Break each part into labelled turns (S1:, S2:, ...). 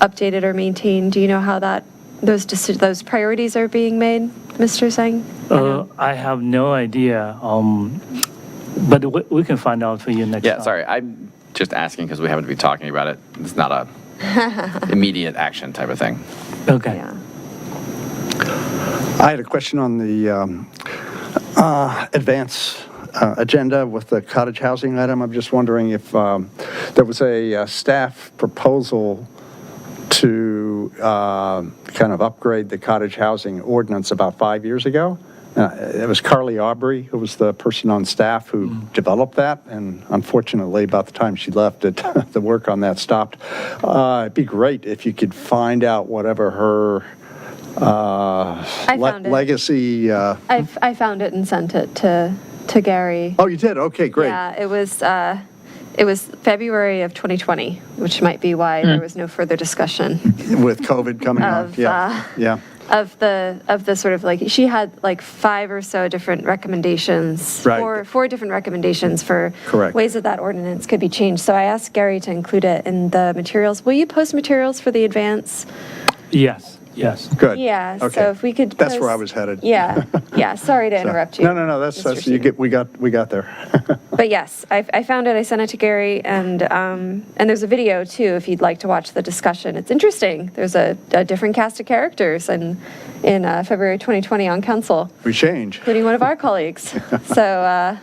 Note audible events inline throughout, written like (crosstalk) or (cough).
S1: updated or maintained? Do you know how that, those, deci- those priorities are being made, Mr. Singh?
S2: Uh-huh.
S3: Uh, I have no idea, um, but we, we can find out for you next time.
S2: Yeah, sorry, I'm just asking because we happen to be talking about it. It's not a immediate action type of thing.
S3: Okay.
S1: Yeah.
S4: I had a question on the um, uh, advance uh, agenda with the cottage housing item. I'm just wondering if um, there was a uh, staff proposal to uh, kind of upgrade the cottage housing ordinance about five years ago. Uh, It was Carly Aubrey, who was the person on staff who developed that, and unfortunately, about the time she left, it, (laughs) the work on that stopped. Uh, It'd be great if you could find out whatever her uh,
S1: I
S4: le-
S1: found it.
S4: legacy, uh,
S1: I, I found it and sent it to, to Gary.
S4: oh, you did? Okay, great.
S1: Yeah, it was, uh, it was February of 2020, which might be why
S4: Mm.
S1: there was no further discussion.
S4: With COVID coming up,
S1: Of, uh,
S4: yeah, yeah,
S1: of the of the sort of like she had like five or so different recommendations
S4: Right.
S1: four four different recommendations for
S4: Correct.
S1: ways that that ordinance could be changed so i asked gary to include it in the materials will you post materials for the advance
S3: Yes, yes.
S4: good.
S1: yeah
S4: Okay.
S1: so if we could
S4: That's where I
S1: post-
S4: was headed.
S1: yeah yeah sorry
S4: (laughs)
S1: to interrupt you
S4: No, no, no, that's,
S1: Mr.
S4: that's, you
S1: Sheehan.
S4: get, we got, we got there. (laughs)
S1: but yes I, I found it i sent it to gary and um, and there's a video too if you'd like to watch the discussion it's interesting there's a, a different cast of characters and in uh, february 2020 on council
S4: We change.
S1: including one of our
S4: (laughs)
S1: colleagues. So, uh,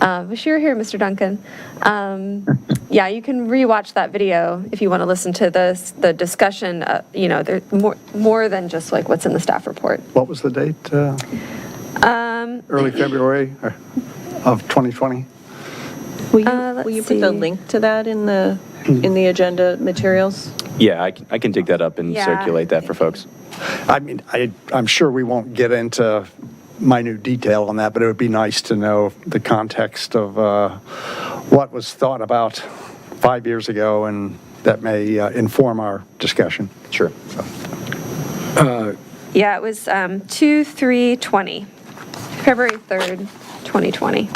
S1: uh, wish you were here, Mr. Duncan. Um, yeah, you can rewatch that video if you want to listen to the the discussion. Uh, you know, there's more more than just like what's in the staff report.
S4: What was the date? uh,
S1: Um,
S4: Early February or- of 2020?
S5: Will you,
S1: Uh,
S5: will you
S1: let's
S5: put the
S1: see.
S5: link to that in the, in the agenda materials?
S6: Yeah, I can, I can dig that up and
S1: Yeah.
S6: circulate that for folks.
S4: I mean, I, I'm sure we won't get into minute detail on that, but it would be nice to know the context of uh, what was thought about five years ago, and that may uh, inform our discussion.
S6: Sure.
S1: Yeah, it was um, two three twenty, February third, twenty twenty.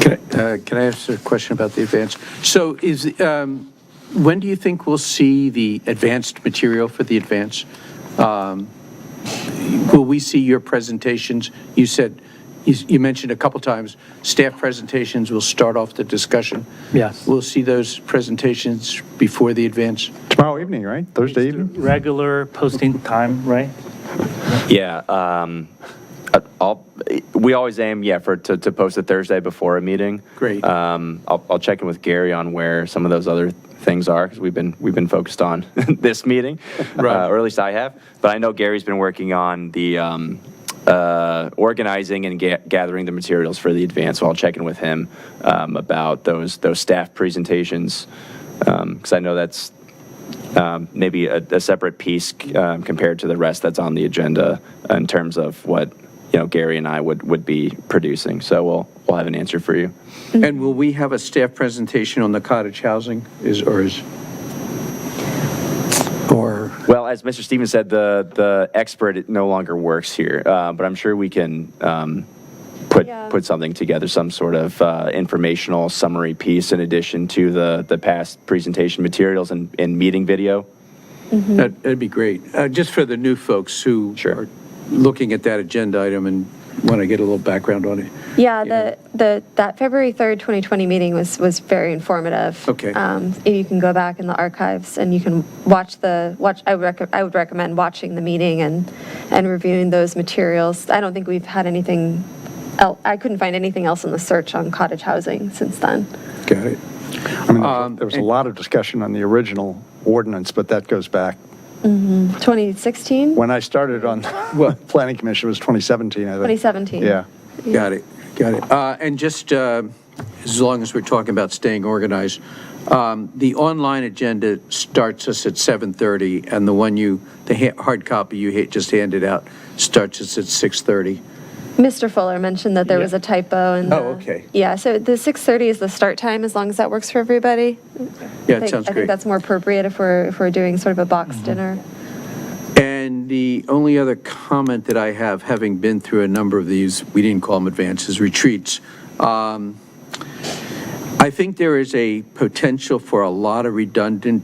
S7: Can I- uh, can I ask a question about the advance? So is, um, when do you think we'll see the advanced material for the advance? Um, Will we see your presentations? You said, you you mentioned a couple times, staff presentations will start off the discussion.
S3: Yes.
S7: We'll see those presentations before the advance?
S4: Tomorrow evening, right? Thursday evening?
S3: Regular posting time, right?
S6: Yeah, um, uh, I'll, we always aim, yeah, for, to, to post it Thursday before a meeting.
S7: Great.
S6: Um, I'll, I'll check in with Gary on where some of those other things are, because we've been, we've been focused on (laughs) this meeting.
S7: Right.
S6: uh, Or at least I have, but I know Gary's been working on the, um, uh, organizing and ga- gathering the materials for the advance, so I'll check in with him, um, about those, those staff presentations. Um 'cause because I know that's, um, maybe a, a separate piece um, compared to the rest that's on the agenda in terms of what you know Gary and I would would be producing. So we'll we'll have an answer for you.
S7: And will we have a staff presentation on the cottage housing, is, or is? Or?
S6: Well, as Mr. Stevens said, the the expert no longer works here, uh, but I'm sure we can. Um, Put,
S1: Yeah.
S6: put something together, some sort of uh, informational summary piece in addition to the, the past presentation materials and, and meeting video.
S7: That- That'd be great. Uh, Just for the new folks who
S6: Sure.
S7: are looking at that agenda item and want to get a little background on it.
S1: Yeah,
S7: Yeah.
S1: the, the, that February 3rd, 2020 meeting was, was very informative.
S7: Okay.
S1: Um, and You can go back in the archives and you can watch the, watch, I would, rec- I would recommend watching the meeting and, and reviewing those materials. I don't think we've had anything, el- I couldn't find anything else in the search on cottage housing since then.
S7: Got it?
S4: I mean, there was a-
S7: Um,
S4: there was a lot of discussion on the original ordinance, but that goes back.
S1: 2016?
S4: When I started on
S7: Well-
S4: (laughs) Planning Commission, it was 2017, I think.
S1: 2017.
S4: Yeah.
S7: Got it, got it. Uh, And just, uh, as long as we're talking about staying organized, um, the online agenda starts us at 7:30, and the one you, the ha- hard copy you ha- just handed out starts us at 6:30.
S1: Mr. Fuller mentioned that there was
S3: Yeah.
S1: a typo in the.
S7: Oh, okay.
S1: Yeah, so the 6:30 is the start time, as long as that works for everybody. I
S7: Yeah, it
S1: think-
S7: sounds
S1: I think
S7: great. Mm-hmm.
S1: that's more appropriate if we're, if we're doing sort of a box dinner.
S7: And the only other comment that I have, having been through a number of these, we didn't call them advances, retreats, um, I think there is a potential for a lot of redundant